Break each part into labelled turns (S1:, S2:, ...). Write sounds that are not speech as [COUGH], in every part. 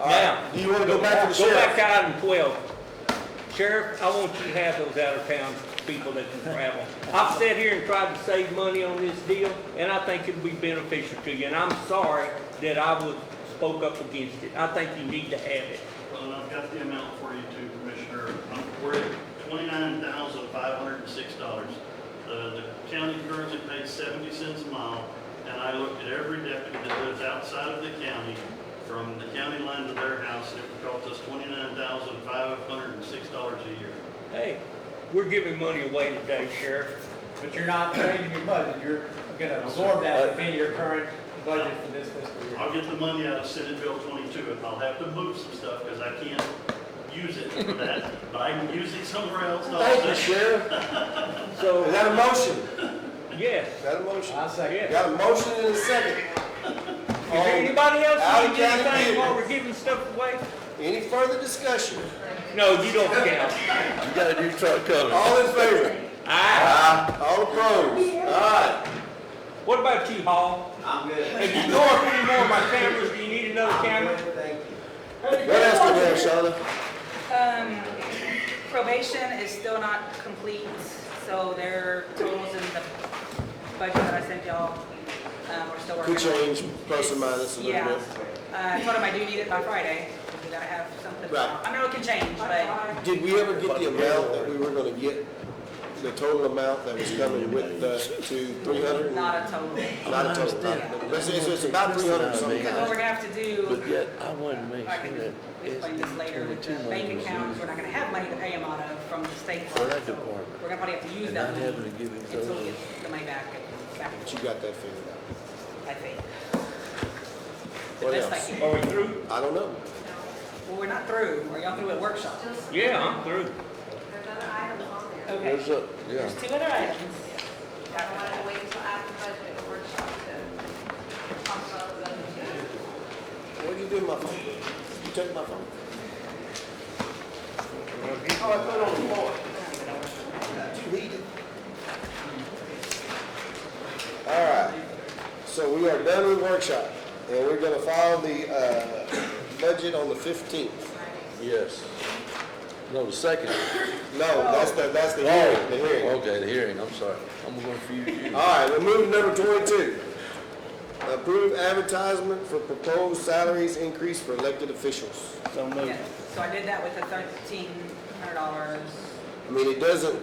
S1: All right.
S2: Now-
S1: Do you want to go back to the
S2: Go back
S1: sheriff?
S2: to item twelve. Sheriff, I want you to have those out-of-town people that can travel. I've sat here and tried to save money on this deal, and I think it'd be beneficial to you, and I'm sorry that I was, spoke up against it. I think you need to have it.
S3: Well, and I've got the amount for you too, Commissioner. Um, We're at twenty-nine thousand five hundred and six dollars. Uh, The county currently pays seventy cents a mile, and I looked at every deputy that lives outside of the county, from the county line to their house, and it would cost us twenty-nine thousand five hundred and six dollars a year.
S2: Hey, we're giving money away today, Sheriff.
S4: But you're not changing your budget, you're gonna absorb that within your current budget for this fiscal year.
S3: I'll get the money out of Senate Bill twenty-two, and I'll have to move some stuff, because I can't use it for that, but I can use it somewhere else.
S1: Thank you, sheriff. Is
S2: So,
S1: that a motion?
S2: yes.
S1: Is that a motion?
S4: I second.
S1: Got a motion and a second.
S2: Is there anybody else need
S1: Out-of-town
S2: anything while
S1: people.
S2: we're giving stuff away?
S1: Any further discussion?
S2: No, you don't
S1: [LAUGHS]
S2: count.
S5: You got a new truck coming.
S1: All in favor?
S2: Aye.
S1: Aye. All opposed? All right.
S2: What about you, Hall?
S6: I'm good.
S2: If you go up anymore, my cameras, do you need another
S6: I'm
S2: camera?
S6: good, thank you.
S1: What else do we have, Shawna?
S7: Um, probation is still not complete, so their totals in the budget that I sent y'all, um, we're still working.
S1: Could
S7: on.
S1: change, plus or minus a little
S7: Yeah.
S1: bit.
S7: Uh, I told him I do need it by Friday, we gotta have something.
S1: Right.
S7: I know it can change, but
S1: Did we ever get the amount that we were gonna get? The total amount that was coming with the, to three hundred? Not
S7: not a total.
S1: a total, not a total. It's, it's- it's about three hundred something.
S7: Because what we're gonna have to do,
S5: But yet, I wanted to make
S7: Uh, I can
S5: sure that
S7: explain this later, with the
S5: SB 22 money
S7: bank
S5: was
S7: accounts, we're
S5: used
S7: not gonna have money to pay them out of from the state.
S5: for that
S7: So
S5: department.
S7: We're gonna probably have to use
S5: And
S7: that
S5: not
S7: money
S5: having to give him
S7: until we
S5: those.
S7: get the money back, back,
S1: But you got that figured out.
S7: I think. The
S1: What
S7: best I
S1: else?
S5: Oh,
S7: can.
S2: Are we through?
S1: I don't know.
S7: Well, we're not through. Are y'all through at workshop?
S2: Yeah, I'm through.
S8: There's other items on there.
S7: Okay.
S5: There's a, yeah.
S7: There's two other items.
S8: I wanted to wait until after budget workshop to talk about those.
S1: What'd you do with my phone? You took my phone? Oh, I put it on the floor. Did you read it? All right, so we are done with workshop, and we're gonna file the, uh, budget on the fifteenth.
S5: Yes. No, the second.
S1: No, that's the, that's the hearing, the hearing.
S5: Okay, the hearing, I'm sorry. I'm gonna refuse
S7: [LAUGHS]
S5: you.
S1: All right, we'll move to number twenty-two. Approve advertisement for proposed salaries increase for elected officials.
S2: So moved.
S7: Yes. So I did that with the thirteen hundred dollars.
S1: I mean, it doesn't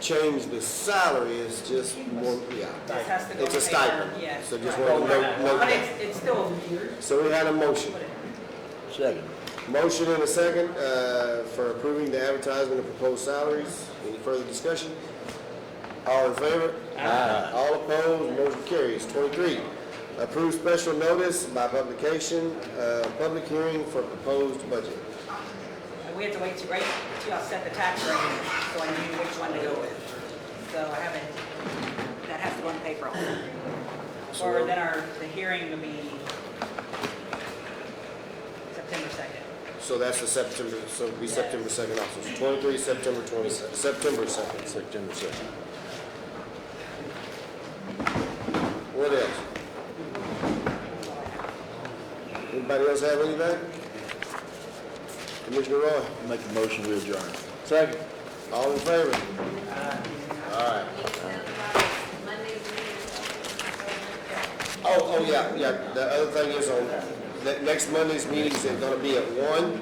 S1: change the salary, it's just more, yeah.
S7: This has to go.
S1: It's a
S7: to pay
S1: stipend,
S7: her. Yes.
S1: so just
S7: right.
S1: wanted to note, note
S7: But
S1: that.
S7: it's, it's still weird.
S1: So we had a motion.
S5: Second.
S1: Motion and a second, uh, for approving the advertisement of proposed salaries. Any further discussion? All in favor? Aye. All opposed, motion carries. Twenty-three, approve special notice by publication, uh, public hearing for proposed budget.
S7: And we had to wait to rate, till y'all set the tax rate, so I knew which one to go with. So I haven't, that has to go in the paper also. Or then our, the hearing will be September second.
S1: So that's the September, so it'll be September second also. So Twenty-three, September twenty, September second.
S5: September second.
S1: What else? Anybody else have anything? Commissioner Roy,
S5: Make a motion, we adjourn. Second.
S1: all in favor?
S8: You can send them out Monday's meeting.
S1: Oh, oh, yeah, yeah, the other thing is on, that next Monday's meetings are gonna be at one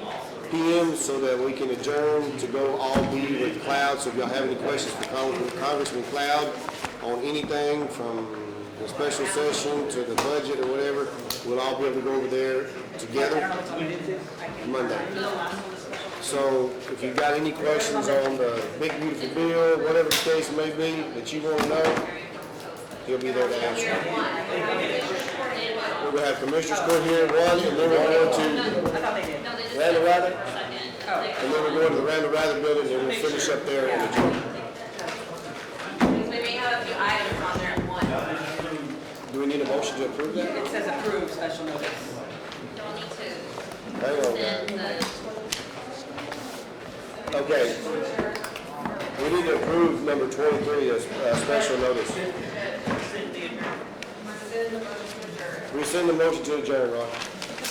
S1: PM so that we can adjourn to go all meeting with Cloud. So if y'all have any questions for Cong- Congressman Cloud on anything from the special session to the budget or whatever, we'll all be able to go over there
S7: I don't know
S1: together
S7: which one it is. I can't-
S1: Monday. So if you've got any questions on the big beautiful bill, whatever the case may be, that you want to know, he'll be there to answer. We're gonna have commissioners court here at one, and then we're going to
S7: I thought they did.
S1: Randall Rather, and then we're going to the Randall Rather building, and we'll finish up there in the joint.
S8: We may have a few items on there at one.
S1: Do we need a motion to approve that?
S7: It says approved special notice.
S8: Don't need to
S1: Hang on, guys.
S8: send the.
S1: Okay. We need to approve number twenty-three as a special notice. Rescind the motion to adjourn, Rob.